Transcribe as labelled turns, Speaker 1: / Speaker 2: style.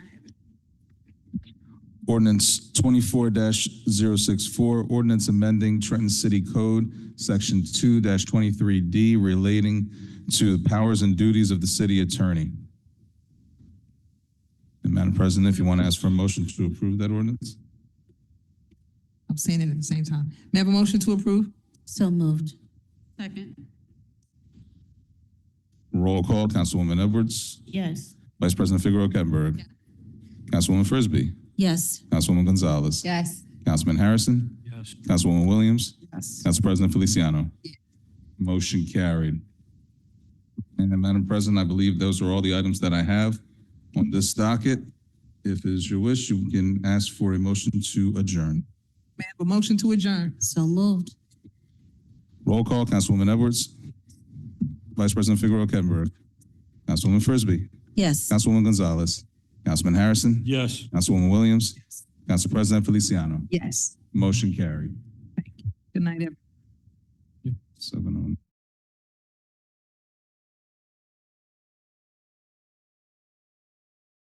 Speaker 1: Ordinance twenty-four 64 ordinance amending Trenton City Code, section two twenty-three D relating to the powers and duties of the city attorney. And Madam President, if you want to ask for a motion to approve that ordinance?
Speaker 2: I'm saying it at the same time. May I have a motion to approve?
Speaker 3: So moved.
Speaker 4: Second.
Speaker 1: Roll call, Councilwoman Edwards,
Speaker 3: Yes.
Speaker 1: Vice President Figaro Kettenberg. Councilwoman Frisbee,
Speaker 3: Yes.
Speaker 1: Councilwoman Gonzalez.
Speaker 4: Yes.
Speaker 1: Councilman Harrison.
Speaker 5: yes,
Speaker 1: Councilwoman Williams.
Speaker 4: Yes.
Speaker 1: Council President Feliciano. Motion carried. And Madam President, I believe those are all the items that I have on this docket. If it is your wish, you can ask for a motion to adjourn.
Speaker 2: May I have a motion to adjourn?
Speaker 3: So moved.
Speaker 1: Roll call, Councilwoman Edwards. Vice President Figaro Kettenberg. Councilwoman Frisbee.
Speaker 3: Yes.
Speaker 1: Councilwoman Gonzalez. Councilman Harrison.
Speaker 5: yes.
Speaker 1: Councilwoman Williams. Council President Feliciano.
Speaker 2: Yes.
Speaker 1: Motion carried.
Speaker 2: Good night, everyone.
Speaker 1: Seven oh.